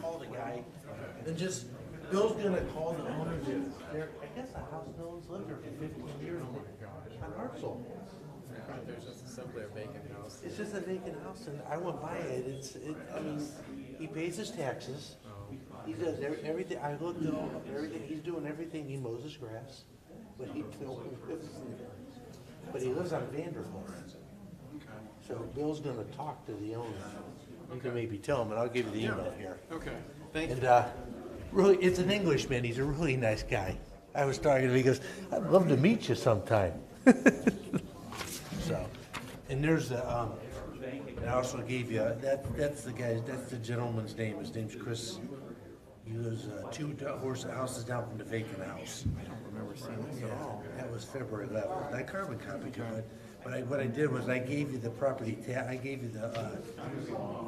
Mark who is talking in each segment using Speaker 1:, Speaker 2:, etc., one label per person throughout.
Speaker 1: call the guy and just, Bill's gonna call the owner of there, I guess the house no one's lived there for fifteen years on Hartzell.
Speaker 2: There's just simply a vacant house.
Speaker 1: It's just a vacant house and I went by it, it's, it, I mean, he pays his taxes. He does ev- everything, I looked at all, everything, he's doing everything, he mows his grass, but he, but he lives on Vanderbilt. So Bill's gonna talk to the owner. You can maybe tell him, and I'll give you the email here.
Speaker 2: Okay, thank you.
Speaker 1: And uh, really, it's an Englishman. He's a really nice guy. I was talking to him. He goes, "I'd love to meet you sometime." so, and there's the. Um, and I also gave you that. That's the guy. That's the gentleman's name. His name's Chris. He lives uh, two do- horse houses down from the vacant house. I don't remember seeing this at all. That was February 11th. I carbon copied it, but. But I, what I did was I gave you the property ta- I gave you the, uh,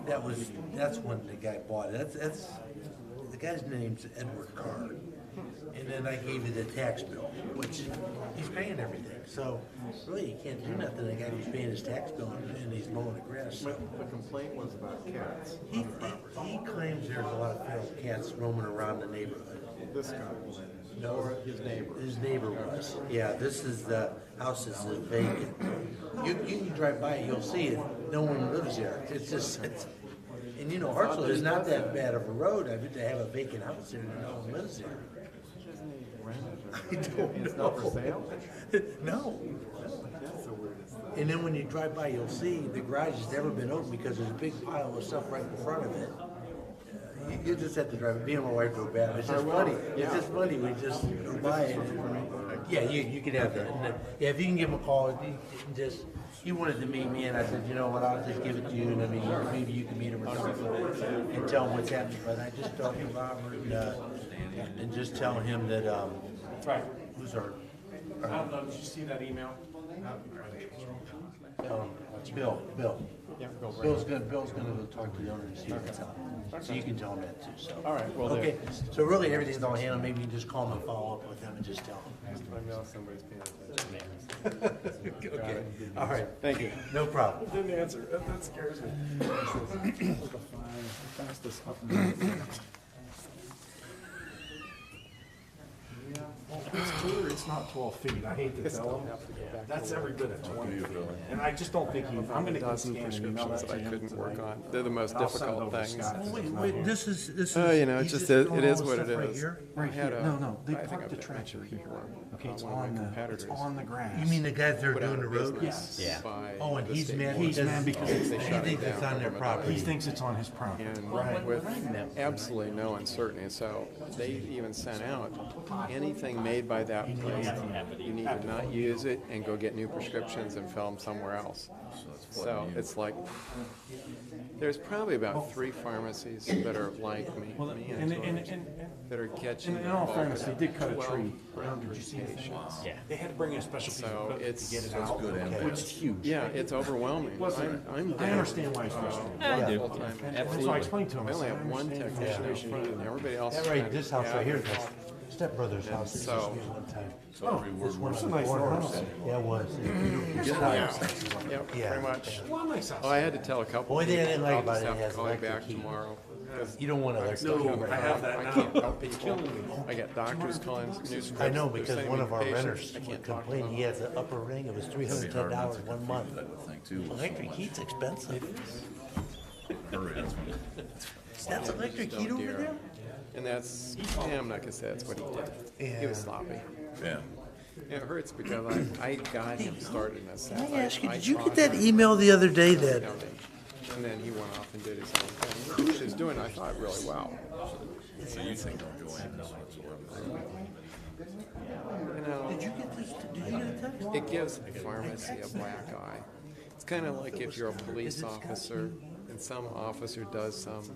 Speaker 1: that was, that's when the guy bought it. That's, that's, the guy's name's Edward Carr. And then I gave you the tax bill, which he's paying everything. So really, you can't do nothing. to The guy who's paying his tax bill and he's mowing the grass. So
Speaker 2: The complaint was about cats.
Speaker 1: He, he he claims there's a lot of feral cats roaming around the neighborhood.
Speaker 2: This guy,
Speaker 1: No, his neighbor. His neighbor was, yeah, this is the house that's vacant. You, you can drive by, it, you'll see it, no one lives there, it's just, it's, and you know, Hartsel is not that bad of a road, I mean, they have a vacant house there, and no one lives there.
Speaker 2: isn't he rented or?
Speaker 1: I don't
Speaker 2: It's not
Speaker 1: know.
Speaker 2: for sale?
Speaker 1: No,
Speaker 2: That's the weirdest thing.
Speaker 1: and then when you drive by, you'll see the garage has never been opened because there's a big pile of stuff right in front of it. Uh, You, you just have to drive, it. me and my wife go bad, it's just funny, it's just funny, we just go by it. Yeah, you, you can have that, And then- yeah, if you can give him a call, if you can just, he wanted to meet me, and I said, you know what, I'll just give it to you, and I mean, maybe you can meet him or something, and tell him what's happening, but I just talked to Robert, and, uh, and just tell him that, um,
Speaker 3: Right.
Speaker 1: who's our,
Speaker 3: I don't know, did you see that email?
Speaker 1: um, Bill, Bill.
Speaker 2: Yeah, go right.
Speaker 1: Bill's gonna, Bill's gonna go talk to the owner and see what's up. So you can tell him that too, so.
Speaker 2: All right, will do.
Speaker 1: Okay, so really everything's on hand, maybe you can just call him and follow up with him and just tell
Speaker 2: I know somebody's paying attention.
Speaker 1: him. Okay, all right,
Speaker 2: Thank you.
Speaker 1: no problem.
Speaker 3: Didn't answer, that scares me.
Speaker 4: Fastest up north. Well, it's clear it's not twelve feet, I hate to tell him. That's every bit of twenty feet. And I just don't think he, I'm gonna get
Speaker 2: Dozen
Speaker 4: scanned and email
Speaker 2: prescriptions
Speaker 4: that to
Speaker 2: that I
Speaker 4: him
Speaker 2: couldn't work
Speaker 4: tonight.
Speaker 2: on. They're the most
Speaker 4: And I'll send it
Speaker 2: difficult
Speaker 4: over to
Speaker 2: things.
Speaker 4: Scott
Speaker 1: Well,
Speaker 4: since
Speaker 1: wait,
Speaker 4: he's not
Speaker 1: wait,
Speaker 4: here.
Speaker 1: this is, this is.
Speaker 2: Oh, you know, it
Speaker 1: he's
Speaker 2: just is,
Speaker 1: throwing
Speaker 2: it
Speaker 1: all
Speaker 2: is
Speaker 1: this
Speaker 2: what
Speaker 1: stuff
Speaker 2: it
Speaker 1: right
Speaker 2: is.
Speaker 1: here?
Speaker 2: I
Speaker 4: Right
Speaker 2: had
Speaker 4: here,
Speaker 2: a-
Speaker 4: no, no, they
Speaker 2: I think
Speaker 4: parked
Speaker 2: I've
Speaker 4: the
Speaker 2: got
Speaker 4: tractor
Speaker 2: actually
Speaker 4: here.
Speaker 2: one.
Speaker 4: Okay,
Speaker 2: Uh,
Speaker 4: it's
Speaker 2: one of my
Speaker 4: on the, it's
Speaker 2: competitors
Speaker 4: on the grass.
Speaker 1: You mean the guys that are
Speaker 2: put out
Speaker 1: doing the
Speaker 2: of
Speaker 1: road?
Speaker 2: business
Speaker 4: Yes.
Speaker 2: by
Speaker 1: Oh, and
Speaker 2: the
Speaker 1: he's
Speaker 2: state
Speaker 1: mad,
Speaker 2: board.
Speaker 1: he's
Speaker 4: He's mad because it's-
Speaker 2: They
Speaker 1: he
Speaker 2: shut it
Speaker 1: thinks it's
Speaker 2: down
Speaker 1: on their
Speaker 2: overnight.
Speaker 4: He
Speaker 1: property.
Speaker 4: thinks it's on his property.
Speaker 2: And with absolutely no uncertainty, so they even sent out, anything made by that place, you need to not use it and go get new prescriptions and fill them somewhere else. So it's like, there's probably about three pharmacies that are like me,
Speaker 4: Well,
Speaker 2: me
Speaker 4: and,
Speaker 2: and
Speaker 4: and,
Speaker 2: George,
Speaker 4: and, and
Speaker 2: that are catching.
Speaker 4: In all
Speaker 2: the bulk of
Speaker 4: fairness, they did cut a
Speaker 2: 12
Speaker 4: tree down. Did you see the thing?
Speaker 2: patients.
Speaker 4: They had to bring in a special piece
Speaker 2: So
Speaker 4: of equipment
Speaker 2: it's-
Speaker 4: to get it out, which is huge.
Speaker 2: Yeah, it's overwhelming. I'm, I'm
Speaker 4: I
Speaker 2: down
Speaker 4: understand why it's frustrating.
Speaker 2: full time.
Speaker 4: That's why I explained to him,
Speaker 2: I
Speaker 4: I
Speaker 2: Uh, only
Speaker 4: said,
Speaker 2: have one
Speaker 4: I
Speaker 2: technician out
Speaker 4: understand.
Speaker 2: front, and everybody else.
Speaker 1: That
Speaker 2: is
Speaker 1: right,
Speaker 2: kind of
Speaker 1: this house right here,
Speaker 2: average.
Speaker 1: that's stepbrother's house, this was
Speaker 2: so-
Speaker 1: me one time.
Speaker 4: Oh,
Speaker 1: This one
Speaker 4: it's
Speaker 1: on
Speaker 4: a
Speaker 1: the
Speaker 4: nice
Speaker 1: corner.
Speaker 4: little house.
Speaker 1: Yeah, it was. Beautiful house.
Speaker 2: Yep,
Speaker 1: Yeah.
Speaker 2: pretty much.
Speaker 4: Well, nice house.
Speaker 2: Oh, I had to tell a couple.
Speaker 1: Only thing I didn't
Speaker 2: people,
Speaker 1: like
Speaker 2: I'll
Speaker 1: about
Speaker 2: just
Speaker 1: it, it
Speaker 2: have to
Speaker 1: has
Speaker 2: call you
Speaker 1: electric
Speaker 2: back
Speaker 1: heat.
Speaker 2: tomorrow. 'cause
Speaker 1: You don't want
Speaker 2: I
Speaker 1: to.
Speaker 2: still
Speaker 1: No,
Speaker 2: don't
Speaker 1: I
Speaker 2: help. I can't help people. I got doctors calling, new scripts.
Speaker 1: I know,
Speaker 2: They're
Speaker 1: because
Speaker 2: sending
Speaker 1: one
Speaker 2: me
Speaker 1: of our
Speaker 2: patients.
Speaker 1: renters
Speaker 2: I can't talk to
Speaker 1: complained, he has an upper ring, it was three hundred and ten dollars one month.
Speaker 5: I would think too. with so
Speaker 1: Electric
Speaker 5: much
Speaker 1: heat's expensive.
Speaker 5: hurry.
Speaker 1: That's electric heat over there?
Speaker 2: And that's, yeah, I'm not gonna say that's what he did. He was
Speaker 1: Yeah.
Speaker 2: sloppy.
Speaker 5: Yeah.
Speaker 2: It hurts because I, I got him started in this.
Speaker 1: Can I ask you, did you get that email the other day that,
Speaker 2: And then he went off and did his own thing, which he was doing, I thought, really well.
Speaker 5: So you think don't go in this whatsoever.
Speaker 2: You know,
Speaker 1: did you get this, did you get a text?
Speaker 2: it gives the pharmacy a black eye. It's kind of like if you're a police officer and some officer does some